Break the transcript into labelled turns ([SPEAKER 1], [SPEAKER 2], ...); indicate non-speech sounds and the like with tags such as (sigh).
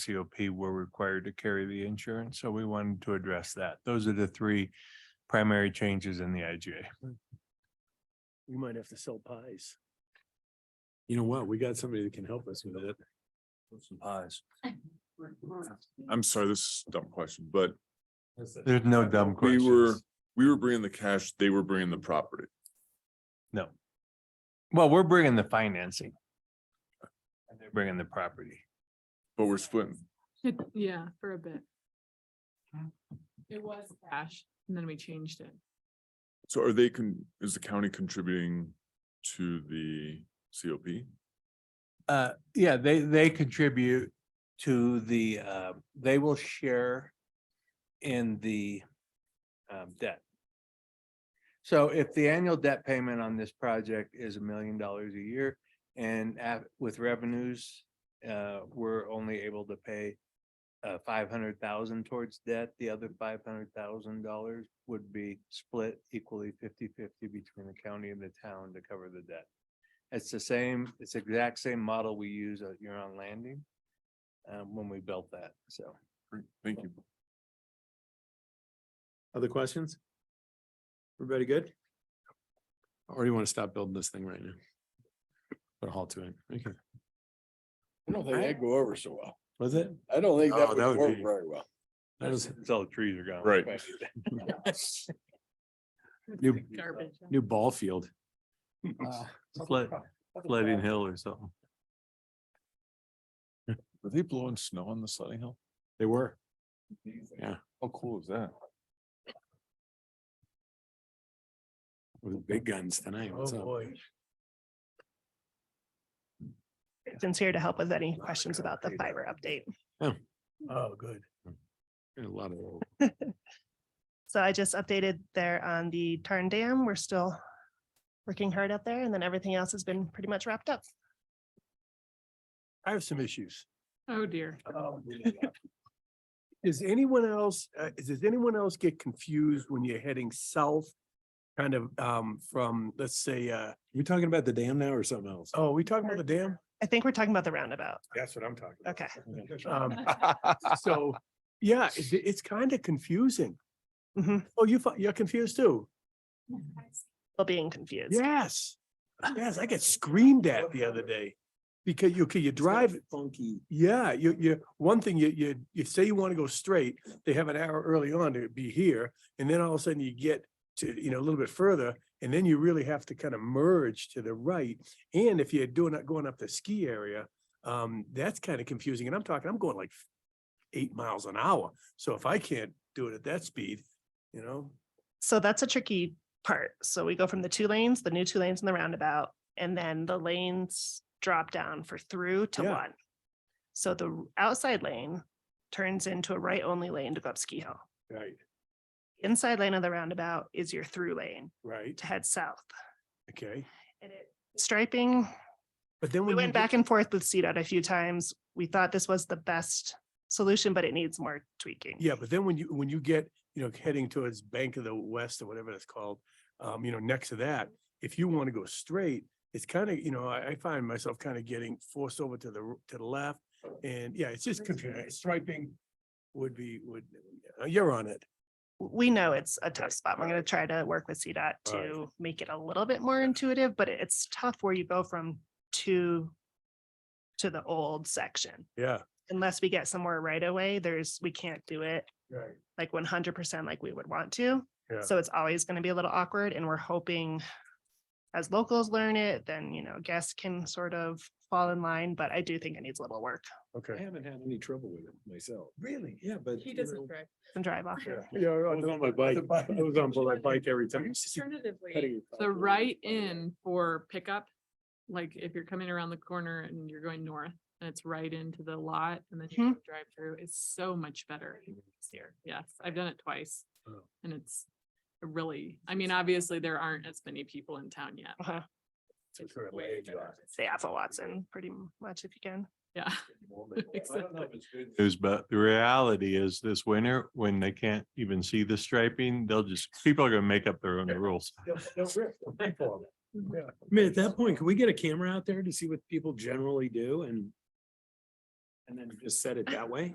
[SPEAKER 1] COP were required to carry the insurance, so we wanted to address that. Those are the three primary changes in the IGA.
[SPEAKER 2] We might have to sell pies.
[SPEAKER 3] You know what? We got somebody that can help us with it.
[SPEAKER 1] Some pies.
[SPEAKER 4] I'm sorry, this is a dumb question, but
[SPEAKER 1] There's no dumb
[SPEAKER 4] we were,
[SPEAKER 1] questions.
[SPEAKER 4] we were bringing the cash, they were bringing the property.
[SPEAKER 1] No. Well, we're bringing the financing. And they're bringing the property.
[SPEAKER 4] But we're splitting.
[SPEAKER 5] (laughs) Yeah, for a bit. It was cash and then we changed it.
[SPEAKER 4] So are they con, is the county contributing to the COP?
[SPEAKER 1] Uh, yeah, they, they contribute to the, uh, they will share in the, um, debt. So if the annual debt payment on this project is a million dollars a year and at, with revenues, uh, we're only able to pay uh, five hundred thousand towards debt, the other five hundred thousand dollars would be split equally 50-50 between the county and the town to cover the debt. It's the same, it's the exact same model we use at Huron Landing. Um, when we built that, so.
[SPEAKER 4] Great, Thank you.
[SPEAKER 3] Other questions? Everybody good? Or you want to stop building this thing right now? Put a halt to it. Okay.
[SPEAKER 6] I don't think
[SPEAKER 3] Right?
[SPEAKER 6] that'd go over so well.
[SPEAKER 3] Was it?
[SPEAKER 6] I don't think
[SPEAKER 3] Oh,
[SPEAKER 6] that
[SPEAKER 3] that
[SPEAKER 6] would
[SPEAKER 3] would
[SPEAKER 6] work
[SPEAKER 3] be-
[SPEAKER 6] very well.
[SPEAKER 3] That was
[SPEAKER 1] It's all the trees are gone.
[SPEAKER 2] (laughs)
[SPEAKER 4] Right.
[SPEAKER 5] It's
[SPEAKER 3] New-
[SPEAKER 5] like Garbage.
[SPEAKER 3] new ball field.
[SPEAKER 1] Flood, flooding hill or something.
[SPEAKER 4] Were they blowing snow on the sledding hill?
[SPEAKER 3] They were.
[SPEAKER 4] How cool is that?
[SPEAKER 3] With the big guns
[SPEAKER 2] Oh,
[SPEAKER 3] tonight. What's up?
[SPEAKER 7] Since here to help with any questions about the fiber update.
[SPEAKER 2] Oh, good.
[SPEAKER 3] A lot of.
[SPEAKER 7] So I just updated there on the Tarn Dam. We're still working hard out there and then everything else has been pretty much wrapped up.
[SPEAKER 2] I have some issues.
[SPEAKER 5] Oh dear.
[SPEAKER 2] Does anyone else, uh, does anyone else get confused when you're heading south? Kind of, um, from, let's say, uh,
[SPEAKER 3] We talking about the dam now or something else?
[SPEAKER 2] oh, are we talking about the dam?
[SPEAKER 7] I think we're talking about the roundabout.
[SPEAKER 2] That's what I'm talking
[SPEAKER 7] Okay.
[SPEAKER 2] Um, so, yeah, it's, it's kind of confusing.
[SPEAKER 7] Mhm.
[SPEAKER 2] Oh, you, fi- you're confused too?
[SPEAKER 7] Well, being confused.
[SPEAKER 2] Yes. Yes, I got screamed at the other day. Because you, okay, you drive,
[SPEAKER 3] Funky.
[SPEAKER 2] yeah, you, you, one thing, you, you, you say you want to go straight, they have an hour early on to be here. And then all of a sudden you get to, you know, a little bit further, and then you really have to kind of merge to the right. And if you're doing, going up the ski area, um, that's kind of confusing. And I'm talking, I'm going like eight miles an hour. So if I can't do it at that speed, you know,
[SPEAKER 7] So that's a tricky part. So we go from the two lanes, the new two lanes and the roundabout, and then the lanes drop down for through to
[SPEAKER 2] Yeah.
[SPEAKER 7] one. So the r- outside lane turns into a right only lane to go up Ski Hill.
[SPEAKER 2] right,
[SPEAKER 7] Inside lane of the roundabout is your through lane
[SPEAKER 2] right,
[SPEAKER 7] to head south.
[SPEAKER 2] okay.
[SPEAKER 7] And it Striping,
[SPEAKER 2] But then
[SPEAKER 7] we
[SPEAKER 2] when you
[SPEAKER 7] went
[SPEAKER 2] get-
[SPEAKER 7] back and forth with CDOT a few times. We thought this was the best solution, but it needs more tweaking.
[SPEAKER 2] Yeah, but then when you, when you get, you know, heading towards Bank of the West or whatever that's called, um, you know, next to that, if you want to go straight, it's kind of, you know, I, I find myself kind of getting forced over to the, r- to the left. And yeah, it's just confusing. Striping would be, would, uh, you're on it.
[SPEAKER 7] we know it's a tough spot. We're gonna try to work with CDOT
[SPEAKER 2] Right.
[SPEAKER 7] to make it a little bit more intuitive, but it- it's tough where you go from two to the old section.
[SPEAKER 2] Yeah.
[SPEAKER 7] Unless we get somewhere right away, there's, we can't do it
[SPEAKER 2] Right.
[SPEAKER 7] like one hundred percent like we would want to.
[SPEAKER 2] Yeah.
[SPEAKER 7] So it's always gonna be a little awkward and we're hoping as locals learn it, then, you know, guests can sort of fall in line, but I do think it needs a little work
[SPEAKER 3] I (laughs)
[SPEAKER 2] Okay.
[SPEAKER 3] haven't had any trouble with it myself. Really? Yeah, but.
[SPEAKER 5] He
[SPEAKER 3] you know,
[SPEAKER 5] doesn't drive.
[SPEAKER 7] and drive off.
[SPEAKER 3] (laughs)
[SPEAKER 7] it.
[SPEAKER 2] Yeah, I
[SPEAKER 3] was on my bike. I was on my bike every time.
[SPEAKER 5] Alternatively,
[SPEAKER 3] (laughs)
[SPEAKER 5] the right in for pickup, like if you're coming around the corner and you're going north and it's right into the lot and then you drive through, it's so much better. Here, yes, I've done it twice.
[SPEAKER 2] Oh.
[SPEAKER 5] And it's really, I mean, obviously there aren't as many people in town yet.
[SPEAKER 7] Uh-huh.
[SPEAKER 5] It's
[SPEAKER 2] sort of
[SPEAKER 5] way
[SPEAKER 2] laid
[SPEAKER 5] better.
[SPEAKER 2] back.
[SPEAKER 7] Stay off of Watson pretty much if you can.
[SPEAKER 5] Yeah. Exactly.
[SPEAKER 1] News, but the reality is this winter, when they can't even see the striping, they'll just, people are gonna make up their own rules.
[SPEAKER 3] I mean, at that point, can we get a camera out there to see what people generally do and? and then just set it that way?